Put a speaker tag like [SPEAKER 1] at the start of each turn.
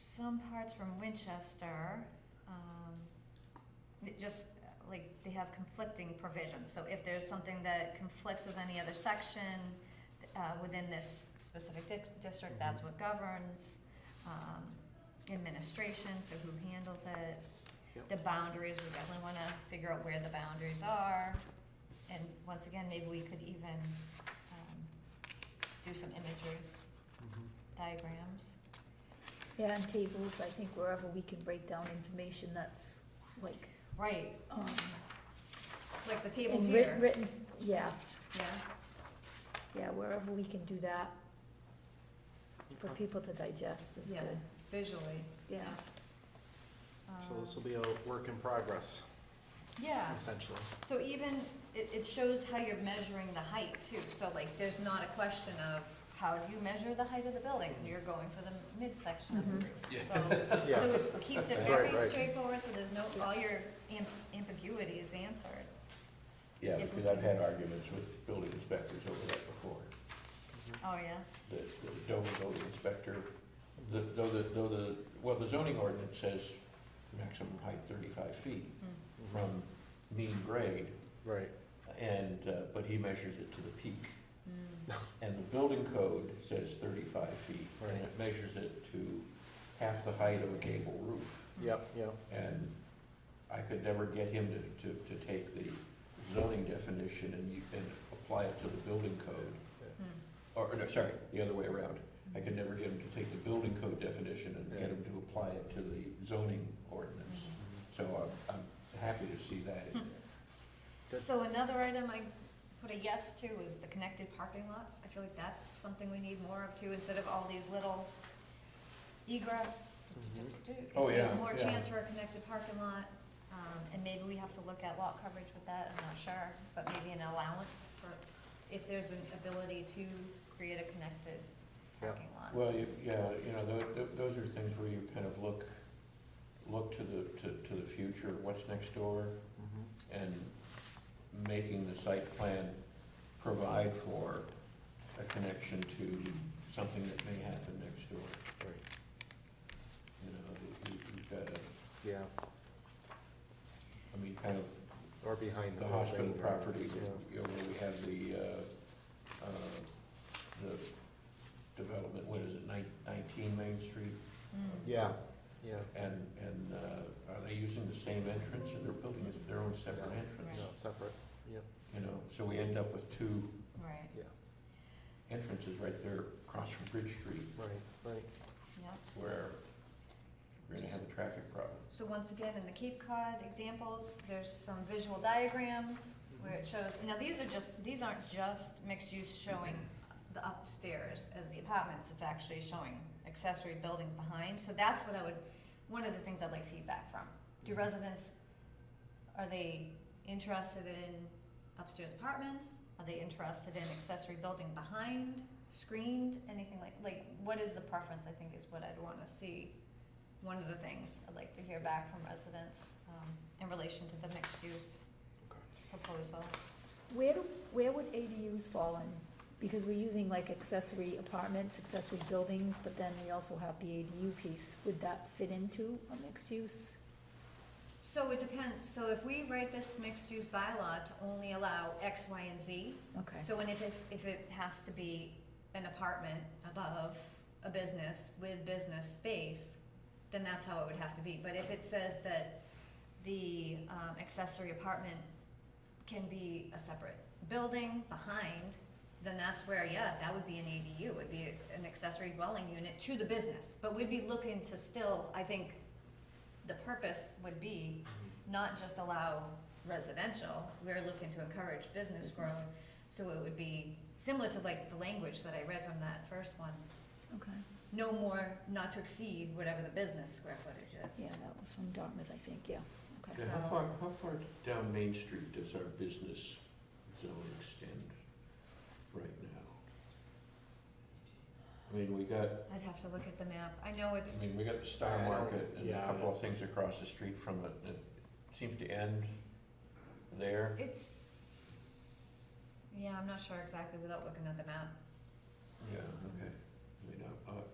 [SPEAKER 1] some parts from Winchester, um, it just, like, they have conflicting provisions. So if there's something that conflicts with any other section, uh, within this specific di- district, that's what governs, um, administration, so who handles it.
[SPEAKER 2] Yep.
[SPEAKER 1] The boundaries, we definitely wanna figure out where the boundaries are. And once again, maybe we could even, um, do some imagery diagrams.
[SPEAKER 3] Yeah, and tables, I think wherever we can break down information that's like,
[SPEAKER 1] Right,
[SPEAKER 3] um,
[SPEAKER 1] like the tables
[SPEAKER 3] in writ-
[SPEAKER 1] here,
[SPEAKER 3] written, yeah,
[SPEAKER 1] yeah,
[SPEAKER 3] yeah, wherever we can do that for
[SPEAKER 2] Okay.
[SPEAKER 3] people to digest is
[SPEAKER 1] Yeah.
[SPEAKER 3] good,
[SPEAKER 1] visually,
[SPEAKER 3] yeah.
[SPEAKER 2] So this will
[SPEAKER 1] Um,
[SPEAKER 2] be a work in progress,
[SPEAKER 1] Yeah,
[SPEAKER 2] essentially.
[SPEAKER 1] so even, it, it shows how you're measuring the height too, so like, there's not a question of how do you measure the height of the building, you're going for the midsection of the
[SPEAKER 3] Mhm.
[SPEAKER 1] roof. So, so
[SPEAKER 2] Yeah,
[SPEAKER 1] it keeps it
[SPEAKER 2] Right,
[SPEAKER 1] very
[SPEAKER 2] right.
[SPEAKER 1] straightforward, so there's no, all your am- ambiguity is answered.
[SPEAKER 4] Yeah,
[SPEAKER 1] If we
[SPEAKER 4] because I've
[SPEAKER 1] can-
[SPEAKER 4] had arguments with building inspectors over that before,
[SPEAKER 1] Oh, yeah,
[SPEAKER 4] that the Dover building inspector, the, though the, though the, well, the zoning ordinance says maximum height thirty-five feet
[SPEAKER 1] Mm.
[SPEAKER 4] from mean grade,
[SPEAKER 2] Mm-hmm. Right,
[SPEAKER 4] and, uh, but he measures it to the peak.
[SPEAKER 1] Mm.
[SPEAKER 4] And the building code says thirty-five feet, and
[SPEAKER 2] Right.
[SPEAKER 4] it measures it to half the height of a gable roof.
[SPEAKER 1] Mm-hmm.
[SPEAKER 2] yep, yep.
[SPEAKER 4] And I could never get him to, to, to take the zoning definition and you, and apply it to the building code.
[SPEAKER 1] Mm.
[SPEAKER 4] Or, or no, sorry, the other way around. I could never get him to take the building code definition and
[SPEAKER 2] Yeah.
[SPEAKER 4] get him to apply it to the zoning ordinance.
[SPEAKER 1] Mhm.
[SPEAKER 4] So I'm, I'm happy to see that. in there.
[SPEAKER 2] Good.
[SPEAKER 1] So another item I put a yes to was the connected parking lots. I feel like that's something we need more of too, instead of all these little egress.
[SPEAKER 2] Mm-hmm.
[SPEAKER 1] If
[SPEAKER 4] Oh,
[SPEAKER 1] There's
[SPEAKER 4] yeah,
[SPEAKER 1] more
[SPEAKER 4] yeah.
[SPEAKER 1] chance for a connected parking lot, um, and maybe we have to look at lot coverage with that, I'm not sure, but maybe an allowance for, if there's an ability to create a connected
[SPEAKER 2] Yeah.
[SPEAKER 1] parking lot.
[SPEAKER 4] Well, you, yeah, you know, tho- tho- those are things where you kind of look, look to the, to, to the future, what's next door,
[SPEAKER 2] Mhm.
[SPEAKER 4] and making the site plan provide for a connection to something that may happen next door.
[SPEAKER 2] Right,
[SPEAKER 4] You know, you, you- you've got to,
[SPEAKER 2] yeah,
[SPEAKER 4] I mean, kind of
[SPEAKER 2] or behind the
[SPEAKER 4] the
[SPEAKER 2] building.
[SPEAKER 4] hospital
[SPEAKER 2] or-
[SPEAKER 4] property,
[SPEAKER 2] yeah.
[SPEAKER 4] you know, where we have the, uh, uh, the development, what is it, nine- nineteen Main Street?
[SPEAKER 1] Mm.
[SPEAKER 2] Yeah, yeah,
[SPEAKER 4] And, and, uh, are they using the same entrance and they're building this- their own separate
[SPEAKER 2] Yeah.
[SPEAKER 4] entrance?
[SPEAKER 2] no, separate, yep,
[SPEAKER 4] You know, so we end up with two
[SPEAKER 1] Right,
[SPEAKER 2] yeah,
[SPEAKER 4] entrances right there across from Bridge Street
[SPEAKER 2] right, right.
[SPEAKER 1] yeah.
[SPEAKER 4] where we're gonna have a traffic problem.
[SPEAKER 1] So once again, in the Cape Cod examples, there's some visual diagrams where it shows, now these are just, these aren't just mixed use showing the upstairs as the apartments, it's actually showing accessory buildings behind, so that's what I would, one of the things I'd like feedback from. Do residents, are they interested in upstairs apartments? Are they interested in accessory building behind, screened, anything like, like, what is the preference, I think is what I'd wanna see. One of the things I'd like to hear back from residents, um, in relation to the mixed use
[SPEAKER 2] Okay.
[SPEAKER 1] proposal.
[SPEAKER 3] Where do, where would ADUs fall in? Because we're using like accessory apartments, accessory buildings, but then we also have the ADU piece, would that fit into a mixed use?
[SPEAKER 1] So it depends, so if we write this mixed use bylaw to only allow X, Y, and Z,
[SPEAKER 3] Okay,
[SPEAKER 1] so and if, if, if it has to be an apartment above a business with business space, then that's how it would have to be, but if it says that the, um, accessory apartment can be a separate building behind, then that's where, yeah, that would be an ADU, it would be an accessory dwelling unit to the business, but we'd be looking to still, I think, the purpose would be
[SPEAKER 2] Mm-hmm.
[SPEAKER 1] not just allow residential, we're looking to encourage business growth.
[SPEAKER 3] Business.
[SPEAKER 1] So it would be similar to like the language that I read from that first one,
[SPEAKER 3] okay,
[SPEAKER 1] no more, not to exceed whatever the business square footage is.
[SPEAKER 3] yeah, that was from Dartmouth, I think, yeah, okay.
[SPEAKER 4] Yeah, How far, how far down Main Street does our business zone extend right now? I mean, we got,
[SPEAKER 1] I'd have to look at the map, I know it's,
[SPEAKER 4] I mean, we got the Star
[SPEAKER 2] I don't-
[SPEAKER 4] Market and
[SPEAKER 2] yeah,
[SPEAKER 4] a
[SPEAKER 2] I
[SPEAKER 4] couple
[SPEAKER 2] don't-
[SPEAKER 4] of things across the street from it, it seems to end there.
[SPEAKER 1] it's, yeah, I'm not sure exactly without looking at the map.
[SPEAKER 4] Yeah, okay. I mean, I,